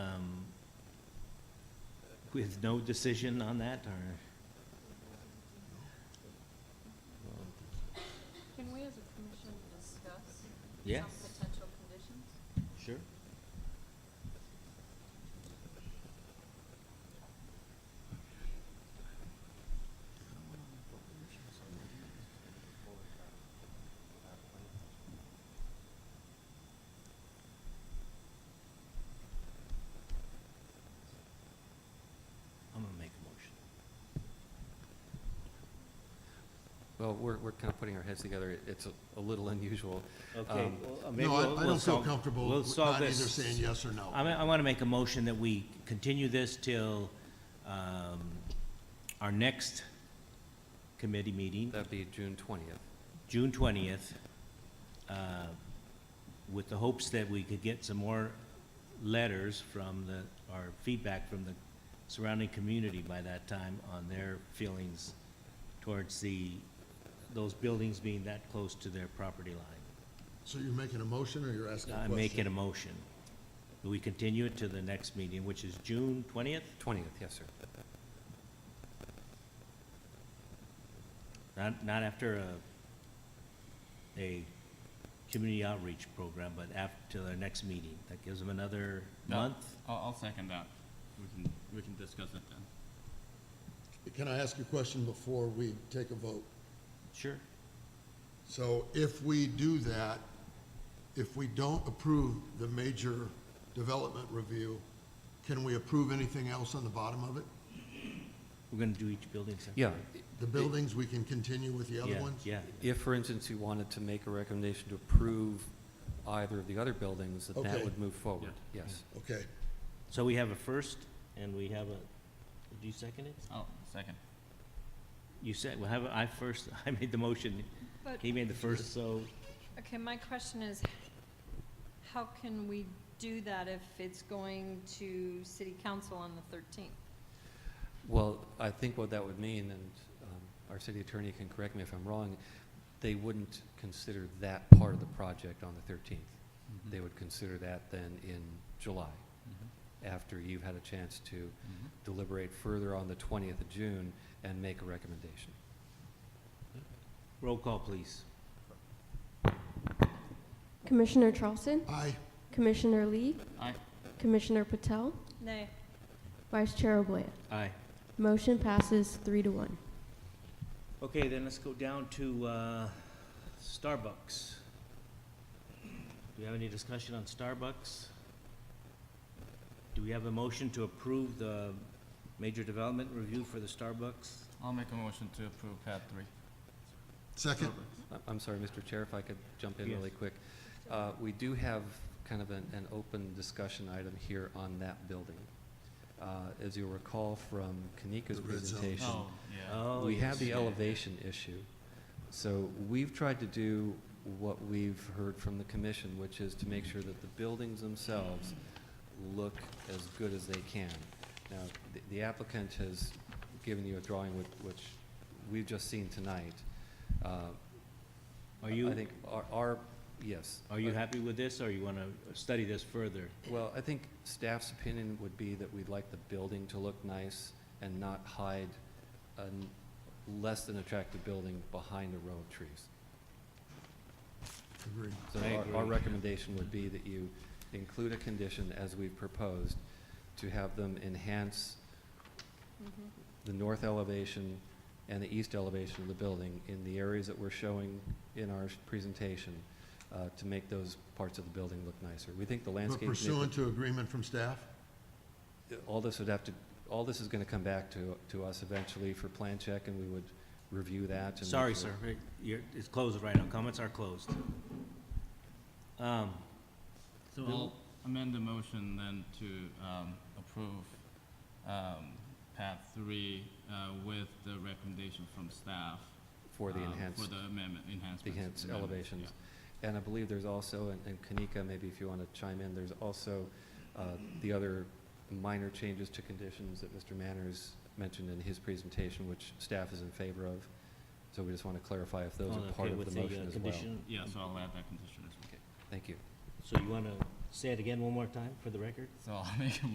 um, with no decision on that, or? Can we as a commission discuss Yes. some potential conditions? Sure. I'm gonna make a motion. Well, we're, we're kind of putting our heads together. It- It's a- a little unusual. Okay. Um, well, uh, maybe No, we'll- I- I we'll don't feel solve- comfortable we'll with solve not either this- saying yes or no. I mean, I want to make a motion that we continue this till um, our next committee meeting, That'd be June 20th. June 20th, uh, with the hopes that we could get some more letters from the, or feedback from the surrounding community by that time on their feelings towards the, those buildings being that close to their property line. So you're making a motion or you're asking a I'm question? making a motion. We continue it to the next meeting, which is June 20th? 20th, yes, sir. Not, not after a, a community outreach program, but after their next meeting. That gives them another No, month. I'll, I'll second that. We can, we can discuss it then. Can I ask a question before we take a vote? Sure. So if we do that, if we don't approve the major development review, can we approve anything else on the bottom of it? We're gonna do each building separately. Yeah. The buildings, we can continue with the other Yeah, ones? Yeah, If, for instance, you wanted to make a recommendation to approve either of the other buildings, that that Okay. would move forward, yes. Okay, so we have a first, and we have a, do you second it? I'll Oh, second. You said, we'll have, a- I first, I made the motion, But, he made the first, so, okay, my question is, how can we do that if it's going to city council on the thirteenth? Well, I think what that would mean, and um, our city attorney can correct me if I'm wrong, they wouldn't consider that part of the project on the 13th. Mm-hmm. They would consider that then in July, Mm-hmm. after you've had a chance to Mm-hmm. deliberate further on the 20th of June and make a recommendation. roll call, please. Commissioner Charleston, aye. Commissioner Lee, Aye. Commissioner Patel, Nay, Vice Chair Oblea. Aye. Motion passes three to one. Okay, then let's go down to, uh, Starbucks. Do we have any discussion on Starbucks? Do we have a motion to approve the major development review for the Starbucks? I'll make a motion to approve pad three. Second, I- I'm sorry, Mr. Chair, if I could jump in Yes. really quick. Uh, We do have kind of an, an open discussion item here on that building. Uh, As you'll recall from Kanika's The red zone. presentation, Oh, yeah. Oh, we have yes. the elevation issue. So we've tried to do what we've heard from the commission, which is to make sure that the buildings themselves look as good as they can. Now, the- the applicant has given you a drawing which, which we've just seen tonight. Uh, Are I you, think our- our, yes. are you Uh, happy with this, or you wanna study this further? Well, I think staff's opinion would be that we'd like the building to look nice and not hide a n- less than attractive building behind a row of trees. agreed. So I our- our agree. recommendation would be that you include a condition, as we've proposed, to have them enhance Mhm. the north elevation and the east elevation of the building in the areas that we're showing in our s- presentation uh, to make those parts of the building look nicer. We think the But landscape. pursuant to agreement from staff? all this would have to, all this is going to come back to, to us eventually for plan check, and we would review that. and Sorry, make sure- sir, It- you're, it's closed right now, comments are closed. Um, So I'll Bill? amend the motion then to, um, approve, um, pad three, uh, with the recommendation from staff. For the um, enhanced, For the amendment, enhancements. the enhanced amendments, elevations. yeah. And I believe there's also, and- and Kanika, maybe if you want to chime in, there's also uh, the other minor changes to conditions that Mr. Manners mentioned in his presentation, which staff is in favor of. So we just want to clarify if those oh, are okay, part of with the uh, motion as well. condition- Yeah, so I'll add that condition as well. Thank you. So you wanna say it again one more time for the record? So I'll make a